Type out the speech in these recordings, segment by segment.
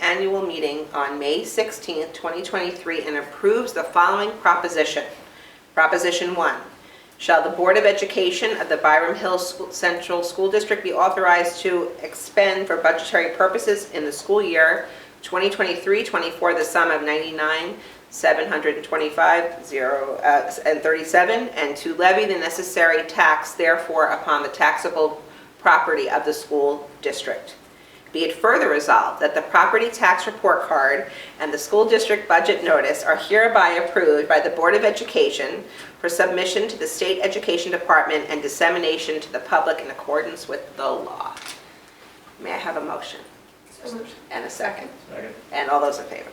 annual meeting on May 16, 2023, and approves the following proposition. Proposition 1, shall the Board of Education of the Byram Hills School- Central School District be authorized to expend for budgetary purposes in the school year 2023-24 the sum of 99 725 zero, uh, and 37, and to levy the necessary tax therefore upon the taxable property of the school district. Be it further resolved that the property tax report card and the school district budget notice are hereby approved by the Board of Education for submission to the State Education Department and dissemination to the public in accordance with the law. May I have a motion? And a second? Second. And all those in favor?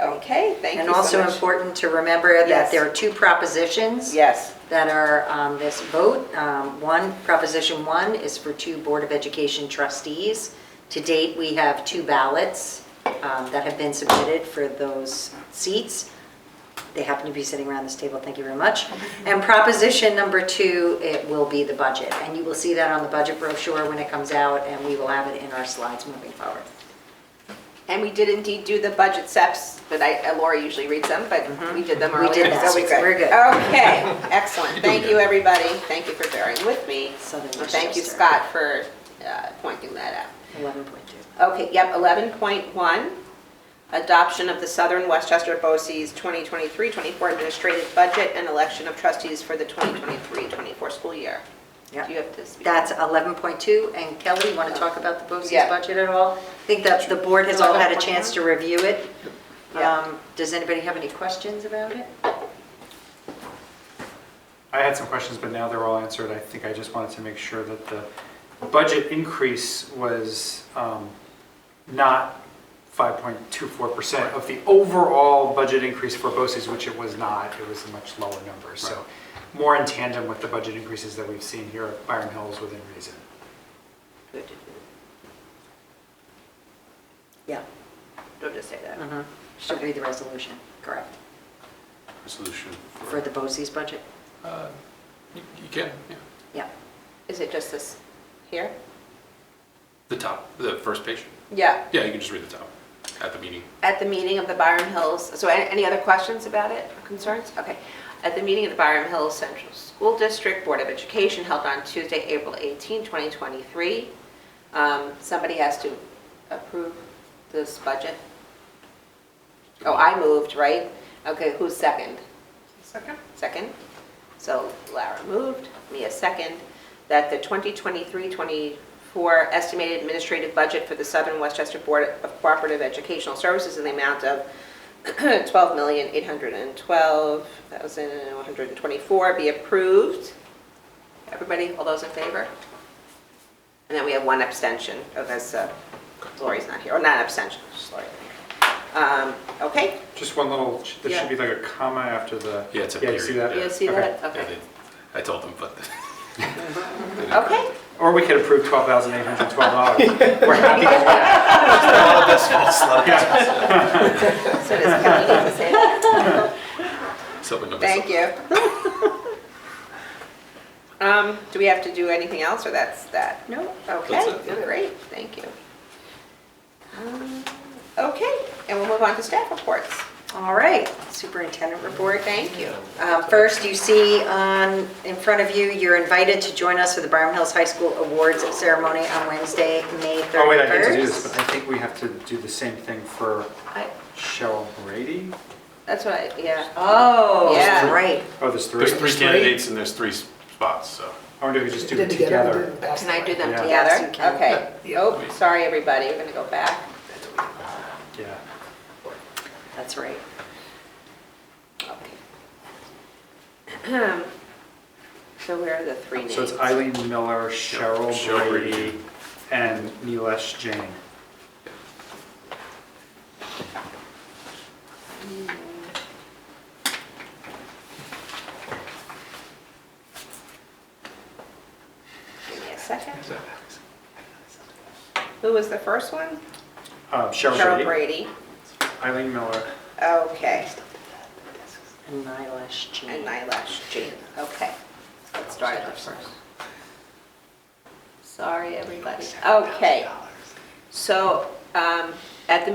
Okay, thank you And so also much. important to remember Yes. that there are two propositions Yes, that are on this vote. Um, One, Proposition 1 is for two Board of Education trustees. To date, we have two ballots um, that have been submitted for those seats. They happen to be sitting around this table, thank you very much. And Proposition Number 2, it will be the budget. And you will see that on the budget brochure when it comes out, and we will have it in our slides moving forward. and we did indeed do the budget steps, but I, uh, Laura usually reads them, but we did them Mm-hmm. We earlier. did that, so so we're good. Okay, excellent. Thank you, everybody. Thank you for bearing with me. Southern And Thank you, Westchester. Scott, for uh, pointing that 11.2. out. Okay, yep, 11.1, adoption of the Southern Westchester BOCES 2023-24 administrative budget and election of trustees for the 2023-24 school year. Do Yep. you have to speak? That's 11.2, and Kelly, you want to talk about the BOCES Yeah. budget at all? I think that the board has all had a chance to review it. Yeah. Um, Does anybody have any questions about it? I had some questions, but now they're all answered. I think I just wanted to make sure that the budget increase was um, not 5.24% of the overall budget increase for BOCES, which it was not. It was a much lower number. So more in tandem with the budget increases that we've seen here at Byron Hills within reason. Good. Yeah. Don't just say that. mhm. Should read the resolution, correct, resolution for the BOCES budget? Uh, You you can, yeah. Yeah. Is it just this here? The top, the first page. Yeah. Yeah, you can just read the top at the meeting. At the meeting of the Byram Hills, so a- any other questions about it, or concerns? Okay. At the meeting of the Byram Hills Central School District Board of Education held on Tuesday, April 18, 2023, um, somebody has to approve this budget? Oh, I moved, right? Okay, who's second? Second? Second. So Lara moved, Mia second, that the 2023-24 estimated administrative budget for the Southern Westchester Board of Cooperative Educational Services in the amount of $12,812,124 be approved. Everybody, all those in favor? And then we have one abstention, oh, that's uh, Lori's not here, or not abstention, just Lori. Um, Okay, Just one little, there should be like a comma after the. Yeah, it's a you see period, that? you see Okay. that? Yeah, Okay. they- I told them, but. Okay. Or we could approve $12,812. We're happy with that. So does Kelly need to say that? Thank you. Um, do we have to do anything else, or that's that? No. Okay, That's it, yeah. great, thank you. Um, Okay, and we'll move on to staff reports. All right, superintendent report. Thank you. Uh, First, you see on, in front of you, you're invited to join us for the Byram Hills High School Awards Ceremony on Wednesday, May 31st. Oh, wait, I hate to do this, but I think we have to do the same thing for I- Cheryl Brady? That's what I, yeah. Oh, Yeah. right. Oh, there's three? There's three candidates and there's three spots, so. I wonder if we just do Did them together. Can I do them Yeah. together? Yes, you can. Okay. Oh, sorry, everybody, we're gonna go back. Yeah. That's right. Okay. So where are the three names? So it's Eileen Miller, Cheryl Cheryl Brady, Brady. and Nilesh Jain. Give me a second. Who was the first one? Uh, Cheryl Cheryl Brady, Brady. Eileen Miller, Okay. And Nylash Jean. And Nylash Jean, okay. Let's start with first. Sorry, everybody. Okay. So um, at the